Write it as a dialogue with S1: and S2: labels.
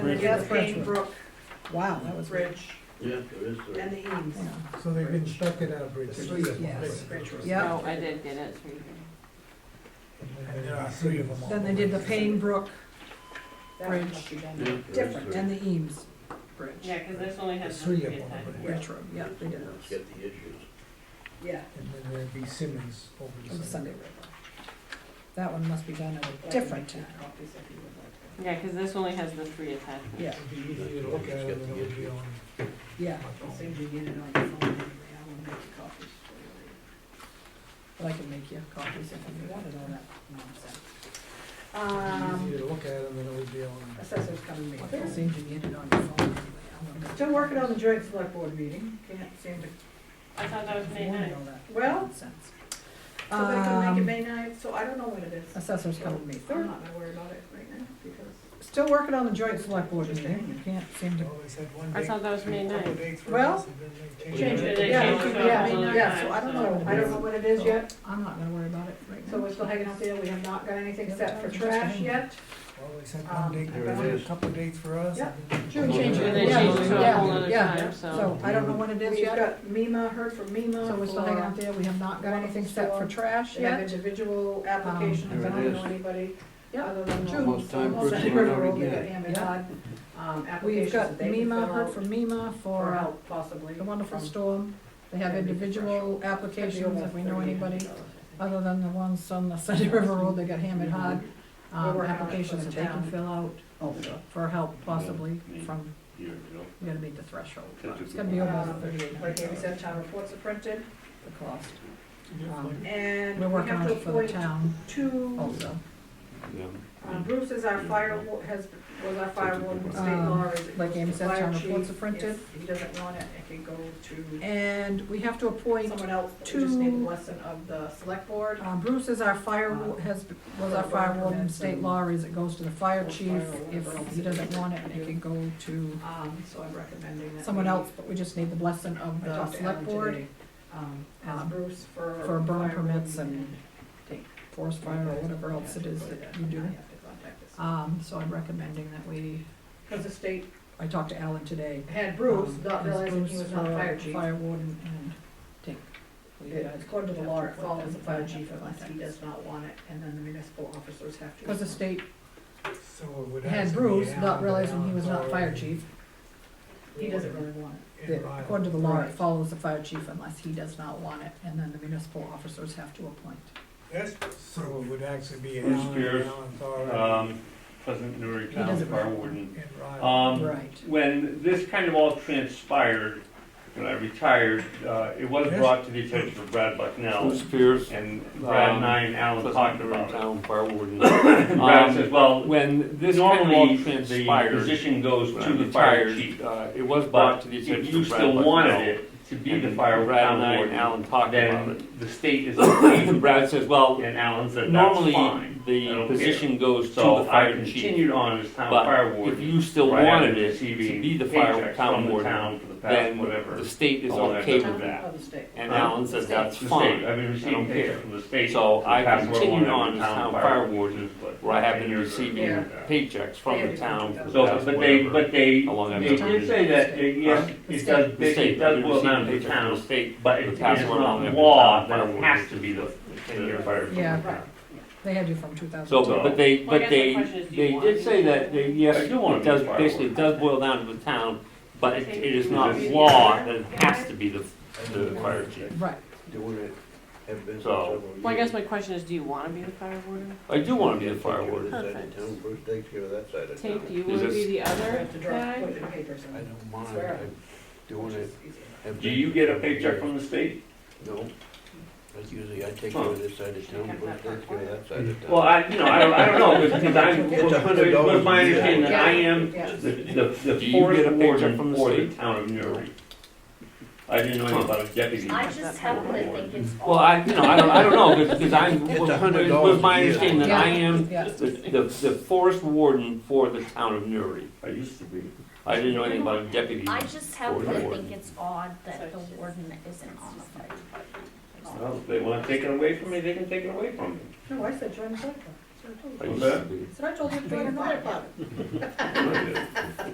S1: Bridge.
S2: That's Dane Brook
S1: Wow, that was.
S2: Bridge
S3: Yeah, there is, uh,
S2: and the Eames.
S1: Yeah.
S4: So they've been stuck at our bridge.
S5: There's three of them.
S1: Yes.
S2: Bridge was-
S1: Yeah.
S6: No, I did get it, three.
S4: And there are three of them. on
S1: Then they did the
S4: one.
S1: Payne Brook
S2: That
S1: Bridge.
S2: must be
S3: yeah, there
S2: done.
S3: is, uh,
S1: different and the Eames Bridge.
S6: Yeah, because this only has.
S4: There's three
S6: to
S4: of
S6: be
S4: them,
S6: attached.
S4: I believe.
S1: Retro, yeah, they did
S3: it's
S1: those.
S3: got the issues.
S2: Yeah.
S4: And then there'd be Simmons over
S1: On
S4: the
S1: the
S4: side.
S1: Sunday River. That one must be done at a different time.
S6: Yeah, because this only has the three attachments.
S1: Yeah,
S4: It'd be easier to look at it than it would be on
S1: yeah,
S4: my phone.
S2: Seems you get it on the phone anyway, I will make the copies for
S1: but I can make you copies if you wanted all that nonsense.
S2: you
S4: Easier
S2: later. Um,
S4: to look at it than it would be on.
S2: assessors coming
S1: Well, It
S2: later.
S1: seems you get it on your phone anyway. I don't know.
S2: Still working on the joint select board meeting, can't seem to,
S6: I thought that was May
S1: Wanted
S6: ninth.
S1: all that
S2: Well,
S1: nonsense.
S2: so they can make it
S1: Um,
S2: May ninth, so I don't know when it is.
S1: Assessors
S2: So
S1: coming May
S2: I'm
S1: third.
S2: not gonna worry about it right now, because,
S1: Still working on the joint select board meeting, you can't seem to.
S6: I thought that was May ninth.
S2: Well,
S6: Change it,
S3: Yeah,
S6: change it.
S2: yeah, yeah,
S6: another
S2: yeah,
S6: time,
S2: so I don't know, I don't know what it is yet,
S1: I'm not gonna worry about it right now.
S2: so we're still hanging out there, we have not got anything set for trash yet.
S4: Well, they sent
S2: Um,
S4: one date,
S3: There it
S4: for us,
S3: is.
S4: a couple of dates for us.
S2: Yeah.
S4: and then-
S1: June
S3: change it.
S6: And then
S1: Yeah,
S6: change it to a
S1: yeah,
S6: whole other
S1: yeah.
S6: time, so.
S1: So I don't know when it is
S2: We've
S1: yet,
S2: got MEMA, heard from MEMA.
S1: so we're still hanging out
S2: for-
S1: there, we have not got anything set for trash
S2: They have
S1: yet.
S2: individual applications, I
S3: There it
S2: don't know
S3: is.
S2: anybody,
S1: Um, Yeah.
S2: other than the.
S3: Almost time for
S2: Almost
S3: it to
S2: every
S3: run
S2: road
S3: out
S2: they got
S3: again.
S2: Hammond
S1: Yeah.
S2: Hod, um, applications
S1: We've
S2: that
S1: got
S2: they can
S1: MEMA,
S2: fill
S1: heard
S2: out
S1: from MEMA
S2: Or
S1: for
S2: help possibly.
S1: the wonderful
S2: from-
S1: storm. They have
S2: That'd be
S1: individual
S2: Could be
S1: applications, if
S2: almost
S1: we know
S2: 38
S1: anybody,
S2: dollars, I think.
S1: other than the ones on the Sunday River Road that got hammered hard.
S2: Mm-hmm. We're
S1: Um,
S2: working on it for
S1: applications
S2: the
S1: that they can
S2: town.
S1: fill out for help possibly
S3: Yeah.
S1: from,
S3: Here, you know.
S1: we gotta meet the threshold.
S3: That's a
S1: It's
S3: good
S1: gonna be
S3: one.
S1: over
S2: Um,
S1: thirty-eight
S2: Like Amy
S1: dollars,
S2: said, town reports are printed,
S1: the cost.
S2: um,
S4: Um,
S2: and
S1: We're
S2: we
S1: working
S2: have
S1: on
S2: to
S1: it for the
S2: appoint
S1: town Oh.
S2: two,
S1: also.
S3: Yeah.
S2: um, Bruce is our fire, wa- has, was our fire warden, state
S1: Mm-hmm. Um,
S2: law is.
S1: like Amy said,
S2: fire
S1: town
S2: chief.
S1: reports are printed.
S2: If he doesn't want it, it can go to
S1: And we have to appoint,
S2: someone else, but we just
S1: two-
S2: need the blessing of the select board.
S1: uh, Bruce is our fire, wa- has, was our fire warden, state law is it goes to the fire chief. If he doesn't want it, it can go to
S2: Um, so I'm recommending that.
S1: someone
S2: we- uh,
S1: else, but we just need the blessing of
S2: I
S1: the
S2: talked to Alan
S1: select board
S2: today, Um, as
S1: um,
S2: Bruce for.
S1: for burn
S2: fire
S1: permits
S2: warden
S1: and forest fire or whatever else it is that you do. Um, so I'm recommending that we,
S2: Because the state
S1: I talked to Alan today.
S2: had Bruce,
S1: um,
S2: not
S1: as
S2: realizing he
S1: Bruce
S2: was not
S1: for
S2: fire chief.
S1: Fire warden and take. well, you guys
S2: According to the
S1: have
S2: law,
S1: to
S2: it
S1: put
S2: falls
S1: that
S2: as a fire chief
S1: in
S2: unless he
S1: context.
S2: does not want it, and then the municipal officers have to.
S1: Because the state
S4: So it would have
S1: had
S4: to be
S1: Bruce,
S4: Alan,
S1: not
S4: but
S1: realizing he
S4: Alan's
S1: was not fire
S4: already
S1: chief.
S2: He doesn't really want it.
S4: in
S1: that
S4: Rhode
S1: According to the law, it
S2: Right.
S1: follows the fire chief unless he does not want it, and then the municipal officers have to appoint.
S4: Yes, so it would actually be
S7: Bruce
S4: Alan,
S7: Spears,
S4: Alan's already
S7: um, Pleasant Newry
S1: He
S7: Town
S1: doesn't
S7: Fire
S1: really-
S7: Warden.
S4: in Rhode
S7: Um,
S1: Right.
S7: when this kind of all transpired, when I retired, uh, it was
S4: Yes.
S7: brought to the attention of Brad Bucknell
S5: Bruce Pierce,
S7: and Brad
S5: Um,
S7: and I and Alan
S5: Pleasant
S7: talked
S5: River
S7: about it.
S5: Town Fire Warden.
S7: Brad says,
S5: Um,
S7: well,
S5: When this kind of
S7: normally
S5: all
S7: the
S5: transpired,
S7: position goes
S5: when
S7: to
S5: I
S7: the fire
S5: retired,
S7: chief.
S5: uh, it was brought
S7: But
S5: to the attention
S7: if
S5: of
S7: you
S5: Brad
S7: still wanted
S5: Bucknell,
S7: it to be the
S5: and
S7: fire
S5: Brad and I
S7: town
S5: and
S7: warden,
S5: Alan talked about it.
S7: then the state is okay.
S5: Brad says, well,
S7: And Alan said, that's
S5: normally
S7: fine. I
S5: the
S7: don't care."
S5: position goes to
S7: So
S5: the
S7: I
S5: fire chief.
S7: continued on as town
S5: But
S7: fire warden.
S5: If you still
S7: Right after
S5: wanted it to
S7: receiving
S5: be the fire
S7: paychecks
S5: town
S7: from the
S5: warden,
S7: town for the past
S5: then
S7: whatever.
S5: the state is
S7: all that
S5: okay
S7: stuff.
S5: with that.
S2: Of the state.
S5: And Alan says, that's
S7: The state,
S5: fine,
S7: I've been
S5: I don't
S7: receiving
S5: care.
S7: paychecks from the state.
S5: So
S7: for
S5: I
S7: the past whatever
S5: continued
S7: long I've
S5: on
S7: been
S5: as town fire warden,
S7: but
S5: where I have been
S7: years
S5: receiving
S7: ago.
S5: paychecks from the town. for the
S7: So,
S5: past
S7: but they,
S5: whatever.
S7: but they,
S5: How long I've
S7: they
S5: been
S7: did say that, uh, yes,
S1: The
S7: it
S1: state.
S7: does,
S5: The state,
S7: it
S5: I've been
S7: does boil down
S5: receiving
S7: to
S5: paychecks from the
S7: towns,
S5: state.
S7: but
S5: The
S7: it is
S5: past one
S7: not
S5: I've been
S7: law
S5: town
S7: that
S5: fire
S7: it
S5: warden
S7: has to
S5: is
S7: be the
S5: the
S7: ten-year
S5: 10-year
S7: fire.
S5: fire.
S1: Yeah. They had you from two
S5: So,
S1: thousand
S7: So-
S5: but but they,
S6: Well, I
S5: but
S6: guess
S5: they,
S6: the question is, do you
S5: they
S6: want
S5: did
S6: it?
S5: say that, they, yes,
S7: I do wanna
S5: it
S7: be
S5: does,
S7: fireworks.
S5: basically, it does boil down to the town, but it, it is not
S7: Yes.
S5: law that it has to be the, the fire chief.
S1: Right,
S3: Doing it, have been for
S5: So-
S3: several years.
S6: Well, I guess my question is, do you want to be the fire warden?
S5: I do wanna be
S3: Yeah,
S5: the fire
S3: take care of
S5: warden.
S3: this side of
S6: Perfect.
S3: town, Bruce takes care of that side of
S6: Tank, do
S3: town.
S6: you
S5: Is
S6: want to be
S5: this-
S6: the
S2: You
S6: other
S2: have to draw,
S6: guy?
S2: put it in papers
S3: I
S2: and.
S3: don't mind,
S2: Swear.
S3: I'm doing it. have
S7: Do
S3: been
S7: you
S3: for
S7: get a
S3: several
S7: paycheck
S3: years.
S7: from the state?
S3: No, that's usually, I take care of uh, this side of town, Bruce takes care of that side of town.
S7: Well, I, you know, I don't, I don't know, because because I'm,
S3: It's a hundred
S7: but- but my
S3: dollars a year.
S7: understanding that I am
S2: Yeah.
S7: The, the,
S5: Do
S7: the
S5: you
S7: forest
S5: get a paycheck
S7: warden
S5: from the
S7: for the
S5: state?
S7: town of Newry. I didn't know anything about a deputy.
S8: I just happen to think it's all.
S5: Well, I, you know, I don't, I don't know, cause, 'cause I'm,
S3: It's
S5: it
S3: a hundred
S5: was
S3: dollars
S5: my
S3: a year.
S5: understanding that I am
S1: yeah.
S5: the, the, the forest warden for the town of Newry.
S7: I used to be.
S5: I didn't know anything about a deputy.
S8: I just happen
S5: Or the
S8: to
S5: warden.
S8: think it's odd that the warden isn't on the fire department.
S7: Well, if they wanna take it away from me, they can take it away from me.
S2: No, I said join the select board.
S5: I used to be.
S2: So I told you to join another club.